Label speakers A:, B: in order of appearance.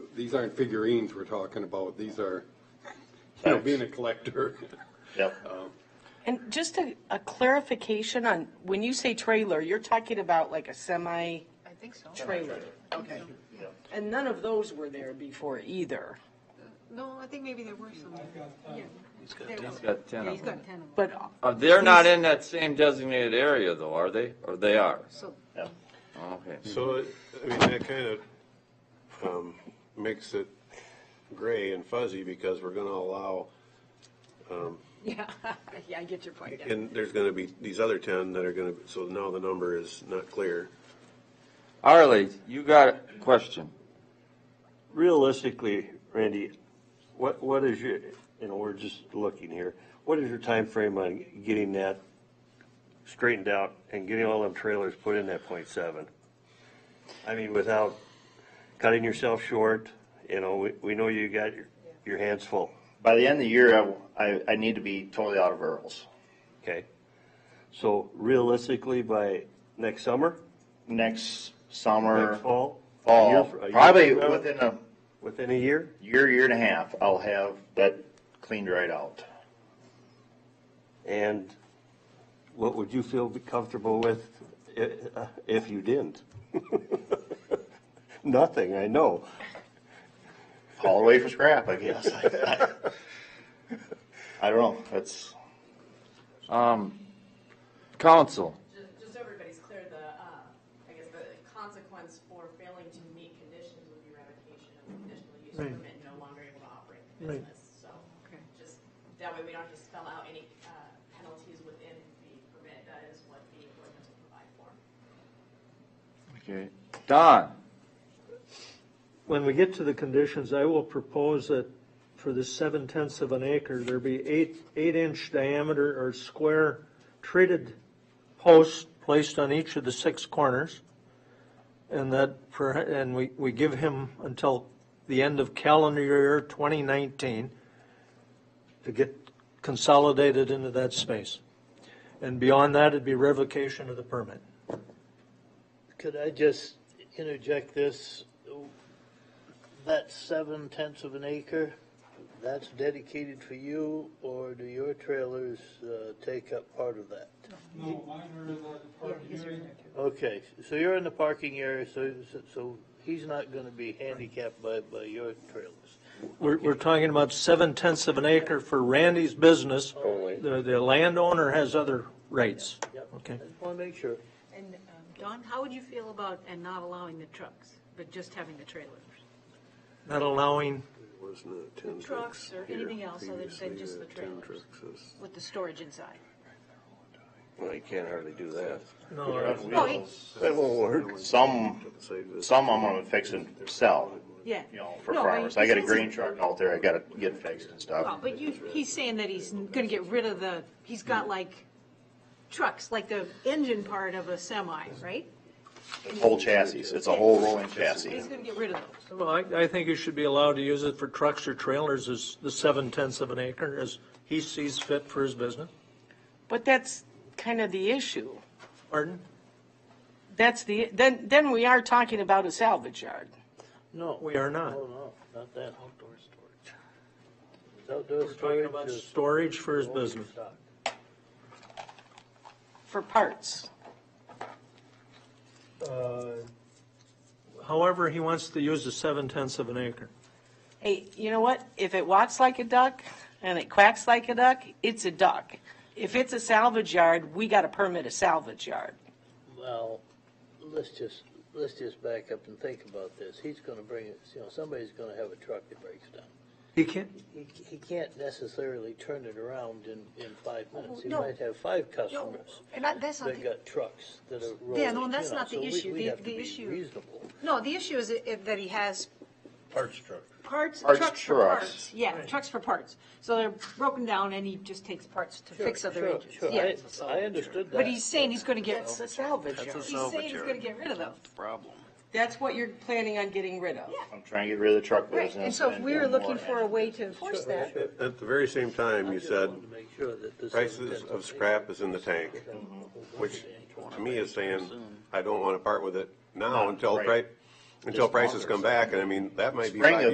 A: these aren't figurines we're talking about, these are, you know, being a collector.
B: Yep.
C: And just a, a clarification on, when you say trailer, you're talking about like a semi-trailer?
D: I think so.
C: Okay. And none of those were there before either.
D: No, I think maybe there were some. Yeah. He's got
E: He's got ten
D: Yeah,
E: of
D: he's
E: them.
D: got ten of them.
C: But,
E: Uh, They're not in that same designated area though, are they? Or they are? Oh,
D: So
E: Okay.
F: So, I mean, that kind of um, makes it gray and fuzzy because we're going to allow,
D: Yeah, yeah, I get your point. yeah.
F: and there's going to be these other 10 that are going to, so now the number is not clear.
E: Arlie, you got a question?
G: Realistically, Randy, what, what is your, you know, we're just looking here, what is your time frame on getting that straightened out and getting all them trailers put in that point seven? I mean, without cutting yourself short, you know, we, we know you got your, your hands full,
B: By the end of the year, I, I, I need to be totally out of Earls.
G: okay? So realistically, by next summer,
B: Next summer,
G: next fall? a year
B: fall,
G: fr- a year
B: probably
G: from now,
B: within a
G: Within a year?
B: year, year and a half, I'll have that cleaned right out.
G: And what would you feel comfortable with i- uh, if you didn't? Nothing, I know.
B: Haul away for scrap, I guess. I don't know. That's,
E: Um, council,
H: Just, just so everybody's clear, the, uh, I guess the consequence for failing to meet conditions would be revocation of the conditional use
I: Right.
H: permit, no longer able to operate the
I: Right.
H: business. So
D: Okay.
H: just, that way we don't have to spell out any uh, penalties within the permit. That is what the ordinance will provide for.
E: okay, Don,
I: When we get to the conditions, I will propose that for the seven tenths of an acre, there be eight, eight inch diameter or square treated posts placed on each of the six corners. And that, for- and we, we give him until the end of calendar year 2019 to get consolidated into that space. And beyond that, it'd be revocation of the permit.
J: Could I just interject this? That seven tenths of an acre, that's dedicated for you, or do your trailers uh, take up part of that?
D: Yeah, he's right there, too.
J: Okay, so you're in the parking area, so, so he's not gonna be handicapped by, by your trailers.
I: We're, we're talking about seven tenths of an acre for Randy's business. The, the landowner has other rights. Okay.
J: I just wanna make sure.
D: And um, Don, how would you feel about, and not allowing the trucks, but just having the trailers?
I: Not allowing,
F: It was not 10
D: Trucks
F: trucks
D: or
F: here
D: anything else other than
F: previously,
D: just the
F: uh, 10
D: trailers.
F: trucks is-
D: With the storage inside?
G: Well, you can't hardly do that.
I: no,
D: Oh, he-
G: That won't work.
B: some,
F: Save this.
B: some I'm gonna fix and sell,
D: Yeah.
B: you know, for
D: No,
B: farmers.
D: but
B: I got a
D: he's-
B: green truck out there. I gotta get fixed and
D: Well,
B: stuff.
D: but you, he's saying that he's gonna get rid of the, he's got like trucks, like the engine part of a semi, right?
B: It's whole chassis. It's a whole rolling chassis.
D: He's gonna get rid of those.
I: well, I, I think you should be allowed to use it for trucks or trailers as the seven tenths of an acre as he sees fit for his business.
C: but that's kind of the issue.
I: Pardon?
C: That's the, then, then we are talking about a salvage yard.
J: No.
I: We are not.
J: No, no, not that. Outdoor storage. Outdoor
I: We're talking
J: storage
I: about
J: is.
I: storage for his business.
J: Stock.
C: for parts.
I: Uh, However, he wants to use the seven tenths of an acre.
C: Hey, you know what? If it walks like a duck and it quacks like a duck, it's a duck. If it's a salvage yard, we got to permit a salvage yard.
J: Well, let's just, let's just back up and think about this. He's gonna bring, it. you know, somebody's gonna have a truck that breaks down.
I: He can't,
J: He, he can't necessarily turn it around in, in five minutes. He
D: Oh, no.
J: might have five customers
D: And that- that's not,
J: that
D: the-
J: got trucks that are rolling.
D: Yeah, no, that's
J: you know,
D: not the
J: so we-
D: issue.
J: we
D: The-
J: have to
D: the
J: be
D: issue-
J: Reasonable.
D: no, the issue is i- that he has
J: Parts truck.
D: parts,
B: Parts,
D: trucks for
B: trucks.
D: parts. Yeah, trucks for parts. So they're broken down and he just takes parts to fix other engines.
J: Sure,
D: Yeah.
J: I, I understood that.
D: But he's saying he's gonna get,
C: That's a salvage yard.
D: he's saying he's gonna get rid of those.
C: That's what you're planning on getting rid of.
B: I'm trying to get rid of the truck
D: Right,
B: business.
D: and so if we were
B: do more
D: looking for a way to enforce that,
F: At the very same time,
J: I
F: you
J: just
F: said
J: wanted to make sure that this
F: prices
J: isn't-
F: of scrap is in the tank, which to me is saying, I don't want to part with it now until,
B: Right.
F: pri- until
B: Just
F: prices
B: longer.
F: come back. And I mean, that might be
B: Spring
F: five
B: of